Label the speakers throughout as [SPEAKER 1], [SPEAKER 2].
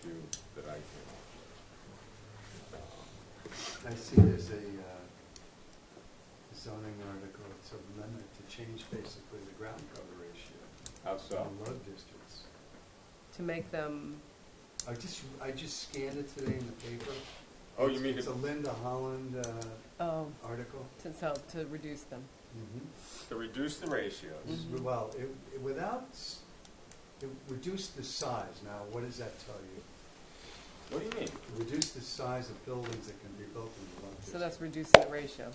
[SPEAKER 1] few that I um, came
[SPEAKER 2] I see there's a uh, zoning article, it's a limit to change basically the ground cover ratio
[SPEAKER 1] up with. How so?
[SPEAKER 2] in road districts.
[SPEAKER 3] to make them,
[SPEAKER 2] I just, I just scanned it today in the paper.
[SPEAKER 1] Oh, you mean,
[SPEAKER 2] It's a
[SPEAKER 1] to-
[SPEAKER 2] Linda Holland uh,
[SPEAKER 3] oh,
[SPEAKER 2] article.
[SPEAKER 3] to help, to reduce them.
[SPEAKER 1] Mm-hmm. to reduce the ratios.
[SPEAKER 3] Mhm.
[SPEAKER 2] Well, it, it- without, s- it reduced the size. Now, what does that tell you?
[SPEAKER 1] What do you mean?
[SPEAKER 2] Reduce the size of buildings that can be built in the road district.
[SPEAKER 3] So that's reducing the ratio.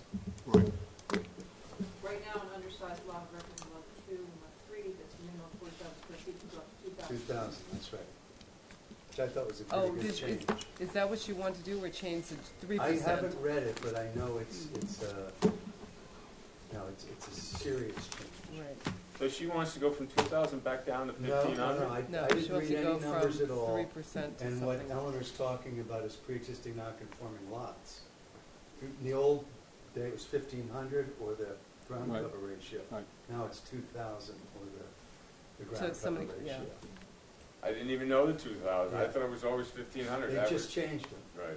[SPEAKER 4] Right.
[SPEAKER 5] Right now, an undersized lot records lot two, and lot three, that's minimum four thousand square feet, can go up to two
[SPEAKER 2] Two
[SPEAKER 5] thousand.
[SPEAKER 2] thousand, that's right. Which I thought was a
[SPEAKER 3] Oh,
[SPEAKER 2] pretty good
[SPEAKER 3] is, is,
[SPEAKER 2] change.
[SPEAKER 3] is that what you want to do, or change the three
[SPEAKER 2] I
[SPEAKER 3] percent?
[SPEAKER 2] haven't read it, but I know it's, it's a, no, it's, it's a serious change.
[SPEAKER 3] Right,
[SPEAKER 1] So she wants to go from two thousand back down to
[SPEAKER 2] No,
[SPEAKER 1] fifteen
[SPEAKER 2] no, no,
[SPEAKER 1] hundred?
[SPEAKER 2] I,
[SPEAKER 3] no,
[SPEAKER 2] I
[SPEAKER 3] she
[SPEAKER 2] didn't
[SPEAKER 3] wants
[SPEAKER 2] read
[SPEAKER 3] to go
[SPEAKER 2] any
[SPEAKER 3] from
[SPEAKER 2] numbers at all.
[SPEAKER 3] three percent to
[SPEAKER 2] And what
[SPEAKER 3] something.
[SPEAKER 2] Eleanor's talking about is pre-existing non-conforming lots. In the old day, it was fifteen hundred or the ground
[SPEAKER 4] Right.
[SPEAKER 2] cover ratio.
[SPEAKER 4] Right.
[SPEAKER 2] Now it's two thousand or the, the
[SPEAKER 3] So
[SPEAKER 2] ground
[SPEAKER 3] it's
[SPEAKER 2] cover
[SPEAKER 3] somebody- yeah.
[SPEAKER 2] ratio.
[SPEAKER 1] I didn't even know the two thousand. I
[SPEAKER 2] Yeah.
[SPEAKER 1] thought it was always fifteen hundred
[SPEAKER 2] They just
[SPEAKER 1] average.
[SPEAKER 2] changed them.
[SPEAKER 1] Right.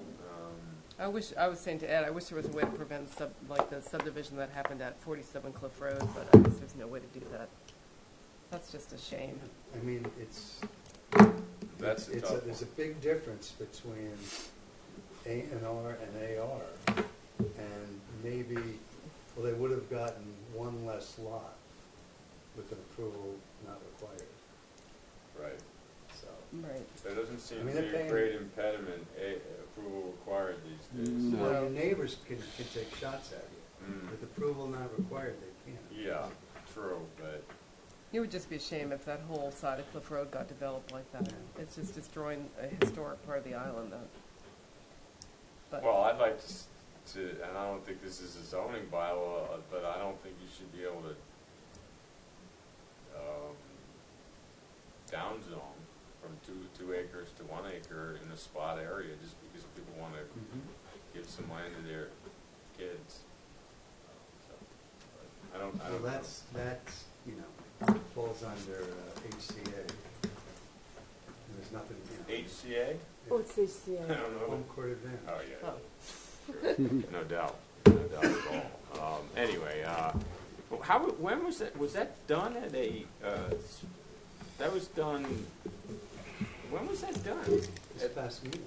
[SPEAKER 1] Um,
[SPEAKER 3] I wish, I was saying to Ed, I wish there was a way to prevent sub, like the subdivision that happened at forty-seven Cliff Road, but I guess there's no way to do that. That's just a shame.
[SPEAKER 2] I mean, it's,
[SPEAKER 1] That's a
[SPEAKER 2] It's
[SPEAKER 1] tough one.
[SPEAKER 2] There's a big difference between A and R and AR, and maybe, well, they would have gotten one less lot with an approval not required,
[SPEAKER 1] Right.
[SPEAKER 2] so.
[SPEAKER 3] Right.
[SPEAKER 1] There doesn't seem
[SPEAKER 2] I
[SPEAKER 1] to
[SPEAKER 2] mean,
[SPEAKER 1] be
[SPEAKER 2] they're
[SPEAKER 1] a
[SPEAKER 2] paying-
[SPEAKER 1] great impediment, a, approval required these days.
[SPEAKER 4] No.
[SPEAKER 2] Well, your neighbors can, can take shots at you.
[SPEAKER 1] Mm,
[SPEAKER 2] With approval not required, they can't.
[SPEAKER 1] Yeah, true, but
[SPEAKER 3] It would just be a shame if that whole side of Cliff Road got developed like that. It's just destroying a historic part of the island, though. But-
[SPEAKER 1] Well, I'd like to, s- to, and I don't think this is a zoning bylaw, uh, but I don't think you should be able to, um, downzone from two, two acres to one acre in a spot area, just because people wanna
[SPEAKER 2] Mm-hmm.
[SPEAKER 1] give some land to their kids. So, but I don't, I
[SPEAKER 2] Well,
[SPEAKER 1] don't know.
[SPEAKER 2] that's, that's, you know, falls under uh, HCA. And There's nothing, you
[SPEAKER 1] HCA?
[SPEAKER 2] know.
[SPEAKER 6] What's HCA?
[SPEAKER 1] I don't know.
[SPEAKER 2] Home court advantage.
[SPEAKER 1] Oh, yeah.
[SPEAKER 3] Oh.
[SPEAKER 1] No doubt, no doubt at all. Um, anyway, uh, well, how, when was that, was that done at a, uh, s- that was done, when was that done?
[SPEAKER 2] This past meeting,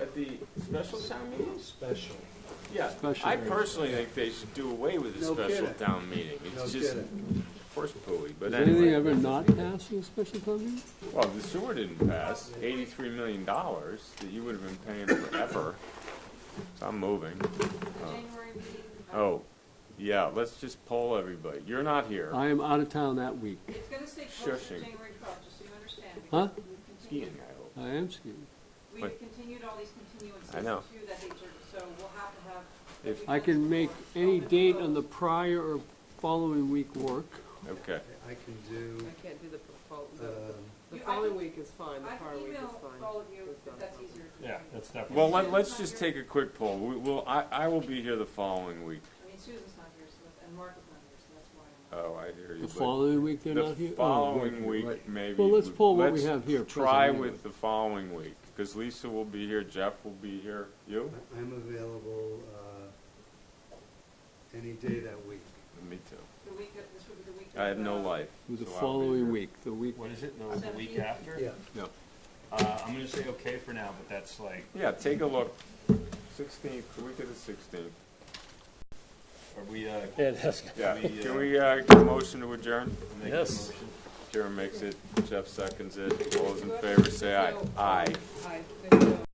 [SPEAKER 1] At the special town meeting?
[SPEAKER 2] special.
[SPEAKER 1] Yeah,
[SPEAKER 4] Special
[SPEAKER 1] I
[SPEAKER 4] meeting.
[SPEAKER 1] personally think they should do away with the
[SPEAKER 2] No
[SPEAKER 1] special
[SPEAKER 2] kidding.
[SPEAKER 1] town meeting.
[SPEAKER 2] No
[SPEAKER 1] It's just
[SPEAKER 2] kidding.
[SPEAKER 1] horse pooey, but
[SPEAKER 4] Is anything
[SPEAKER 1] anyway.
[SPEAKER 4] ever not passed in a special town meeting?
[SPEAKER 1] Well, the sewer didn't pass, eighty-three million dollars that you would have been paying forever. So I'm moving.
[SPEAKER 5] The January meeting. uh,
[SPEAKER 1] Oh, yeah, let's just poll everybody. You're not here.
[SPEAKER 4] I am out of town that week.
[SPEAKER 5] It's gonna stay close to
[SPEAKER 1] Shushing.
[SPEAKER 5] January twelfth, just so you understand.
[SPEAKER 4] Huh?
[SPEAKER 5] because we've
[SPEAKER 1] Skiing,
[SPEAKER 5] continued-
[SPEAKER 1] I hope.
[SPEAKER 4] I am skiing.
[SPEAKER 5] We've continued all these continuances
[SPEAKER 1] I know.
[SPEAKER 5] to that date, so we'll have to have.
[SPEAKER 1] If-
[SPEAKER 4] I can make any date on the prior or following week work.
[SPEAKER 1] Okay.
[SPEAKER 2] I can do,
[SPEAKER 3] I can't do the, fol- the-
[SPEAKER 2] um,
[SPEAKER 3] the
[SPEAKER 5] You- I
[SPEAKER 3] following
[SPEAKER 5] can-
[SPEAKER 3] week is fine, the
[SPEAKER 5] I
[SPEAKER 3] prior
[SPEAKER 5] can
[SPEAKER 3] week is
[SPEAKER 5] email
[SPEAKER 3] fine.
[SPEAKER 5] all of you
[SPEAKER 3] It's not a
[SPEAKER 5] if that's
[SPEAKER 3] problem.
[SPEAKER 5] easier.
[SPEAKER 7] Yeah, that's definitely.
[SPEAKER 1] Well, let, let's just take a quick poll. We will, I, I will be here the following week.
[SPEAKER 5] I mean, Susan's not here, so that's, and Mark is not here, so that's why. I'm-
[SPEAKER 1] Oh, I hear you.
[SPEAKER 4] The
[SPEAKER 1] but
[SPEAKER 4] following week, they're
[SPEAKER 1] the
[SPEAKER 4] not here? Oh,
[SPEAKER 1] following
[SPEAKER 4] right,
[SPEAKER 1] week,
[SPEAKER 4] right.
[SPEAKER 1] maybe.
[SPEAKER 4] Well, let's
[SPEAKER 1] we-
[SPEAKER 4] poll what we
[SPEAKER 1] let's
[SPEAKER 4] have here
[SPEAKER 1] Try
[SPEAKER 4] present
[SPEAKER 1] with the following week, because Lisa will be here, Jeff will be here, you?
[SPEAKER 2] I- I'm available, uh, any day that week.
[SPEAKER 1] Me too.
[SPEAKER 5] The week, of- this would be the week.
[SPEAKER 1] I
[SPEAKER 5] of,
[SPEAKER 1] have no
[SPEAKER 5] uh,
[SPEAKER 1] life.
[SPEAKER 4] It was the
[SPEAKER 1] so I'll be
[SPEAKER 4] following
[SPEAKER 1] here.
[SPEAKER 4] week, the week.
[SPEAKER 7] What is it, no, the week
[SPEAKER 5] Seventeenth.
[SPEAKER 7] after?
[SPEAKER 2] Yeah,
[SPEAKER 4] No.
[SPEAKER 7] Uh, I'm gonna say okay for now, but that's like,
[SPEAKER 1] Yeah, take a look. Sixteenth, the week of the sixteenth.
[SPEAKER 7] are we, uh,
[SPEAKER 8] Yeah, that's,
[SPEAKER 1] Yeah,
[SPEAKER 7] Can we, uh,
[SPEAKER 1] can we, uh, get a motion to adjourn?
[SPEAKER 7] making a
[SPEAKER 8] Yes.
[SPEAKER 7] motion?
[SPEAKER 1] Karen makes it, Jeff seconds it. All those in favor say aye. Aye.
[SPEAKER 3] Hi, there's no-